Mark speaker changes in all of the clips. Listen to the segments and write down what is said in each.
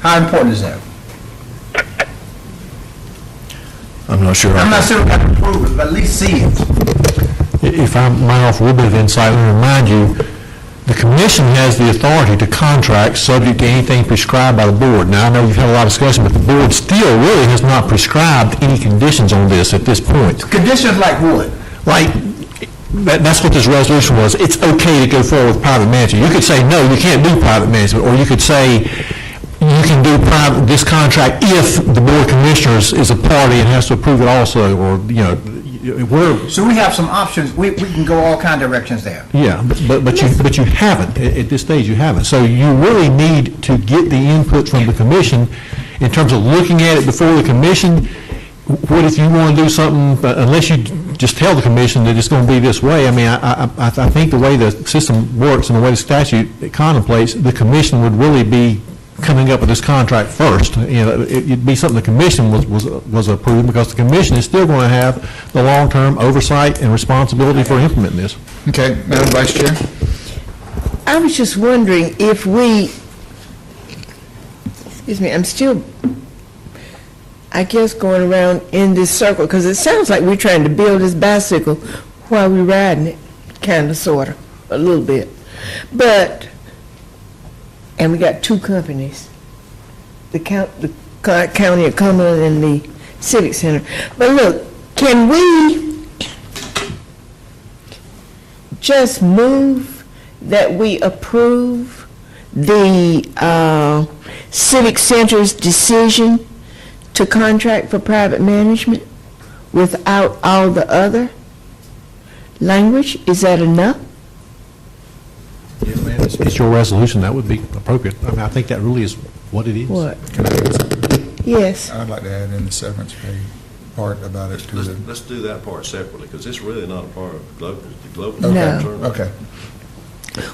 Speaker 1: How important is that?
Speaker 2: I'm not sure.
Speaker 1: I'm not saying we have to prove it, but at least see it.
Speaker 2: If I might offer a little bit of insight, let me remind you, the commission has the authority to contract subject to anything prescribed by the board. Now, I know you've had a lot of discussion, but the board still really has not prescribed any conditions on this at this point.
Speaker 1: Conditions like what?
Speaker 2: Like, that, that's what this resolution was. It's okay to go forward with private management. You could say, no, you can't do private management, or you could say, you can do private, this contract if the board of commissioners is a party and has to approve it also, or, you know, we're,
Speaker 1: So we have some options, we, we can go all kind of directions there.
Speaker 2: Yeah, but- but, but you, but you haven't, at, at this stage, you haven't. So you really need to get the input from the commission in terms of looking at it before the commission. What if you want to do something, uh, unless you just tell the commission that it's going to be this way? I mean, I, I, I I think the way the system works and the way the statute contemplates, the commission would really be coming up with this contract first. You know, it- it'd be something the commission was, was, was approving because the commission is still going to have the long-term oversight and responsibility for implementing this.
Speaker 3: Okay, Madam Vice Chair?
Speaker 4: I was just wondering if we, excuse me, I'm still, I guess, going around in this circle, because it sounds like we're trying to build this bicycle while we're riding it, kind of, sort of, a little bit. But, and we got two companies, the count, the co- county of Cumberland and the Civic Center. But look, can we just move that we approve the uh, Civic Center's decision to contract for private management without all the other language? Is that enough?
Speaker 2: It's it's your resolution, that would be appropriate. I mean, I think that really is what it is.
Speaker 4: What? Yes.
Speaker 3: I'd like to add in the severance pay part about it to
Speaker 5: Let's,
Speaker 3: the,
Speaker 5: let's do that part separately, because it's really not a part of global, the global
Speaker 4: No.
Speaker 5: concern.
Speaker 3: okay.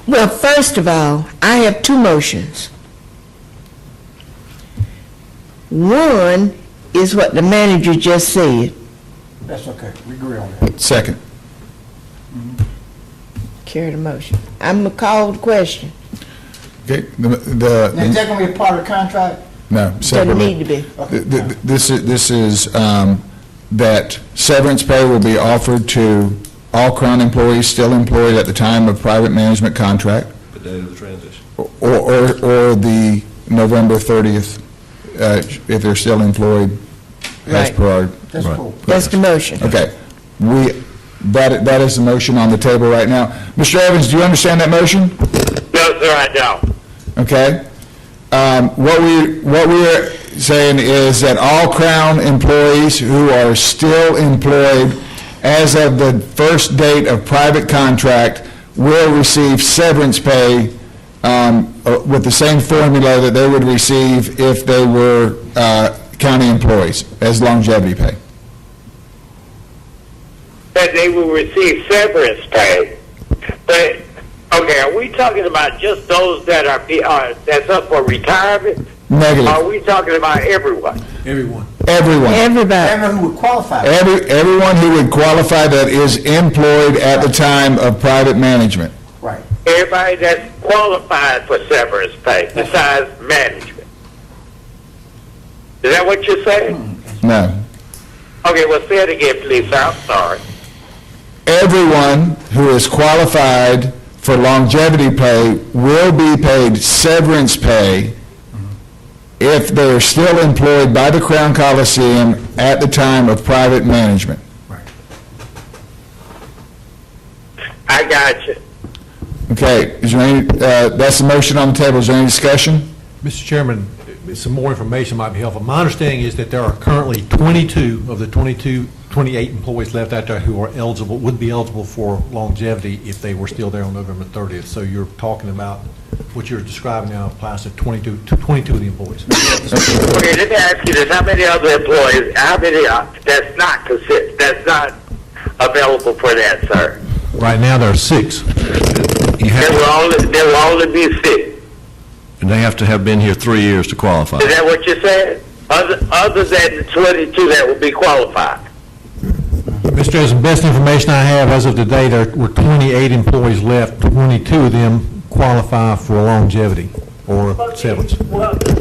Speaker 4: Well, first of all, I have two motions. One is what the manager just said.
Speaker 1: That's okay, we agree on that.
Speaker 3: Second.
Speaker 4: Carry the motion. I'm going to call the question.
Speaker 3: Okay, the, the-
Speaker 1: Now, is that gonna be a part of the contract?
Speaker 3: no,
Speaker 4: Doesn't
Speaker 3: separately.
Speaker 4: need to be.
Speaker 3: Th- th- This is, this is, um, that severance pay will be offered to all Crown employees still employed at the time of private management contract
Speaker 5: The date of the transition.
Speaker 3: or, or, or the November 30th, uh, if they're still employed as
Speaker 4: Right.
Speaker 3: per our
Speaker 1: That's cool.
Speaker 4: That's the motion.
Speaker 3: Okay, we, that, that is the motion on the table right now. Mr. Evans, do you understand that motion?
Speaker 6: No, sir, I don't.
Speaker 3: Okay? Um, What we, what we're saying is that all Crown employees who are still employed as of the first date of private contract will receive severance pay um, uh, with the same formula that they would receive if they were uh, county employees, as longevity pay.
Speaker 6: That they will receive severance pay. But, okay, are we talking about just those that are, be- uh, that's up for retirement? Are
Speaker 3: Negative.
Speaker 6: we talking about everyone?
Speaker 3: Everyone.
Speaker 4: Everybody.
Speaker 1: Everyone who would qualify,
Speaker 3: Every, everyone who would qualify that is employed at the time of private management.
Speaker 1: right.
Speaker 6: Everybody that's qualified for severance pay besides management? Is that what you're saying?
Speaker 3: No.
Speaker 6: Okay, well, say it again, please, sir. I'm sorry.
Speaker 3: Everyone who is qualified for longevity pay will be paid severance pay if they are still employed by the Crown Coliseum at the time of private management.
Speaker 6: I got you.
Speaker 3: Okay, is there any, uh, that's the motion on the table. Is there any discussion?
Speaker 2: Mr. Chairman, some more information might be helpful. My understanding is that there are currently 22 of the 22, 28 employees left out there who are eligible, would be eligible for longevity if they were still there on November 30th. So you're talking about, what you're describing now applies to 22, to 22 of the employees.
Speaker 6: Okay, let me ask you this: How many other employees? How many uh, that's not considered? That's not available for that, sir.
Speaker 2: Right now, there are six.
Speaker 5: You
Speaker 6: There will
Speaker 5: have,
Speaker 6: only there will only be six.
Speaker 5: and they have to have been here three years to qualify.
Speaker 6: Is that what you said? Other other than the twenty-two that will be qualified.
Speaker 2: Mr. President, best information I have, as of today, there were 28 employees left, 22 of them qualify for longevity or severance.
Speaker 6: Well,